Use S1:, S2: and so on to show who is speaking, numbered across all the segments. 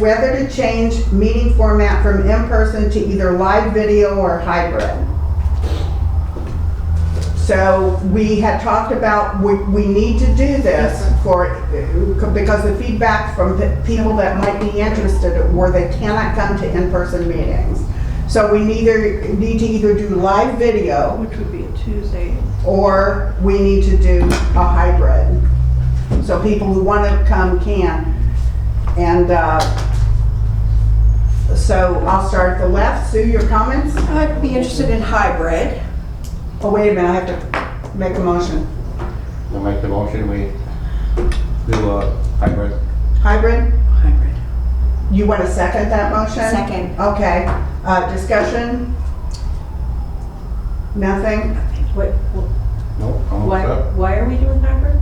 S1: Whether to change meeting format from in-person to either live video or hybrid. So we had talked about, we, we need to do this for, because the feedback from the people that might be interested were they cannot come to in-person meetings. So we neither, need to either do live video
S2: Which would be a Tuesday.
S1: or we need to do a hybrid. So people who want to come can. And uh, so I'll start at the left. Sue, your comments?
S3: I'd be interested in hybrid.
S1: Oh, wait a minute, I have to make a motion.
S4: I make the motion, we do a hybrid.
S1: Hybrid?
S3: Hybrid.
S1: You want to second that motion?
S3: Second.
S1: Okay, uh, discussion? Nothing?
S2: What, wh-
S4: Nope, I'm all
S2: why,
S4: set.
S2: why are we doing hybrid?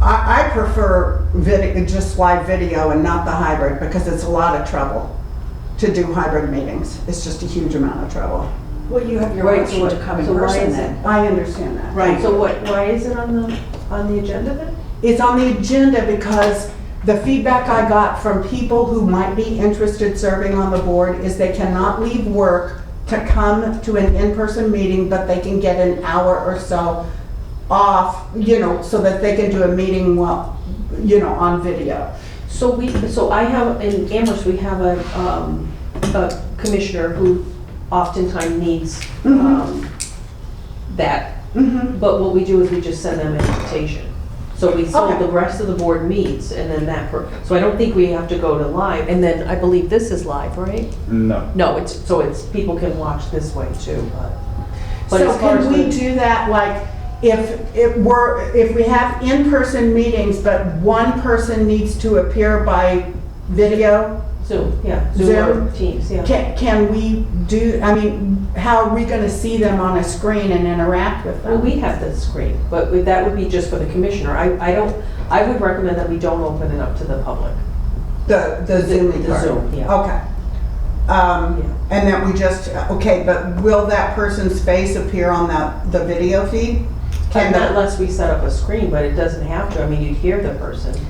S1: I, I prefer vid, just live video and not the hybrid because it's a lot of trouble to do hybrid meetings. It's just a huge amount of trouble.
S3: Well, you have your
S2: Right,
S3: option
S2: so
S3: to come
S2: what-
S3: in
S2: so why
S3: person
S2: is
S3: then.
S1: I understand that.
S3: Right.
S2: So what, why is it on the, on the agenda then?
S1: It's on the agenda because the feedback I got from people who might be interested serving on the board is they cannot leave work to come to an in-person meeting, but they can get an hour or so off, you know, so that they can do a meeting while, you know, on video.
S2: So we, so I have, in Amherst, we have a, um, a commissioner who oftentimes needs, um, that.
S1: Mm-hmm.
S2: But what we do is we just send them an invitation. So we, so
S1: Okay.
S2: the rest of the board meets and then that, per- so I don't think we have to go to live. And then I believe this is live, right?
S4: No.
S2: No, it's, so it's, people can watch this way too, but. but
S1: So
S2: as far as
S1: can we
S2: the-
S1: do that, like, if it were, if we have in-person meetings, but one person needs to appear by video?
S2: Zoom, yeah, Zoom or Teams, yeah.
S1: Can, can we do, I mean, how are we gonna see them on a screen and interact with
S2: Well,
S1: them?
S2: we have the screen, but we- that would be just for the commissioner. I, I don't, I would recommend that we don't open it up to the public.
S1: The, the Zoom
S2: the
S1: part?
S2: Zoom, yeah.
S1: Okay. Um, and that we just, okay, but will that person's face appear on the, the video feed? Can
S2: And
S1: the-
S2: unless we set up a screen, but it doesn't have to, I mean, you'd hear the person.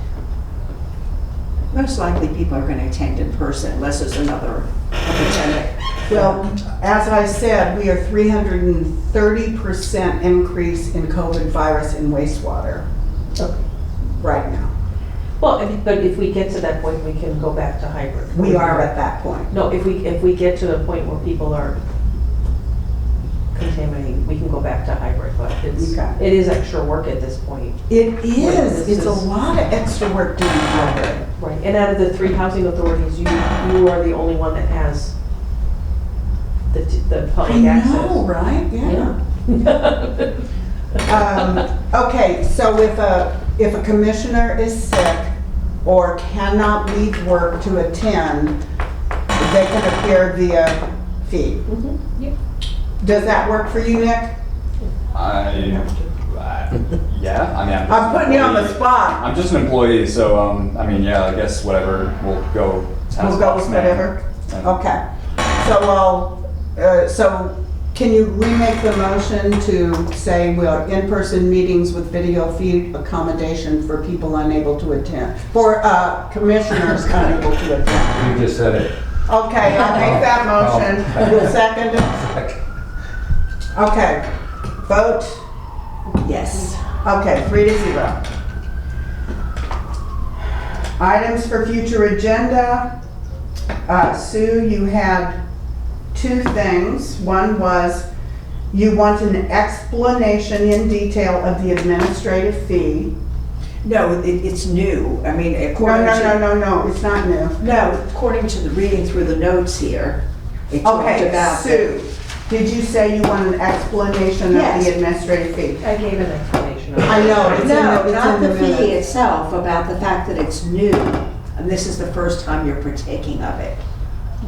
S3: Most likely people are gonna attend in person unless there's another opportunity.
S1: Well, as I said, we are three hundred and thirty percent increase in COVID virus in wastewater
S2: Okay.
S1: right now.
S2: Well, if- but if we get to that point, we can go back to hybrid.
S1: We are at that point.
S2: No, if we, if we get to a point where people are contaminating, we can go back to hybrid, but it's,
S1: Okay.
S2: it is extra work at this point.
S1: It
S2: This
S1: is, it's a
S2: is-
S1: lot of extra work doing hybrid.
S2: Right, and out of the three housing authorities, you, you are the only one that has the, t- the
S1: I
S2: public access.
S1: know, right? Yeah.
S2: Yeah.
S1: Um, Okay, so if a, if a commissioner is sick or cannot leave work to attend, they can appear via feed.
S2: Mhm, yep.
S1: Does that work for you, Nick?
S5: I, I- yeah, I mean, I'm. just
S1: I'm
S5: an
S1: putting you on the
S5: employee.
S1: spot.
S5: I'm just an employee, so, um, I mean, yeah, I guess whatever, we'll go. tennis
S1: We'll go
S5: box
S1: with
S5: man.
S1: whatever.
S5: And-
S1: Okay. So I'll, uh, so can you remake the motion to say we are in-person meetings with video feed accommodation for people unable to attend, for uh, commissioners unable to attend?
S4: You just said it.
S1: Okay, I'll make that motion. You'll second it? Okay. Vote,
S3: Yes.
S1: okay, three to zero. Items for future agenda. Uh, Sue, you had two things. One was you want an explanation in detail of the administrative fee.
S3: No, it, it's new. I mean,
S1: No,
S3: according
S1: no, no,
S3: to,
S1: no, no, it's not new.
S3: no, according to the reading through the notes here, it talked
S1: Okay,
S3: about. that-
S1: Sue, did you say you want an explanation of
S3: Yes.
S1: the administrative fee?
S2: I gave an explanation of it.
S1: I know, it's in the,
S3: No,
S1: it's
S3: not
S1: in the
S3: the fee
S1: minutes.
S3: itself, about the fact that it's new. And this is the first time you're partaking of it.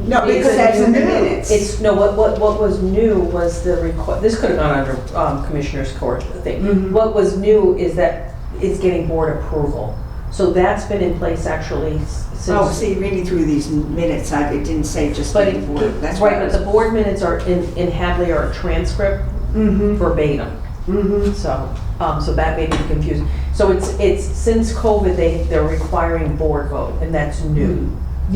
S1: No, because
S2: It's-
S1: it's in the minutes.
S2: It's, no, what, what, what was new was the requ, this could have gone under um, Commissioner's Court
S1: Mhm.
S2: thing. What was new is that it's getting board approval. So that's been in place actually s-
S3: Oh,
S2: since.
S3: see, reading through these minutes, I, it didn't say just
S2: But,
S3: the
S2: it-
S3: board. That's why
S2: right,
S3: I
S2: but
S3: was-
S2: the board minutes are in, in Hadley are a transcript
S1: Mm-hmm,
S2: verbatim.
S1: mm-hmm.
S2: So, um, so that may be
S3: Hmm.
S2: confusing. So it's, it's, since COVID, they, they're requiring board vote, and that's new.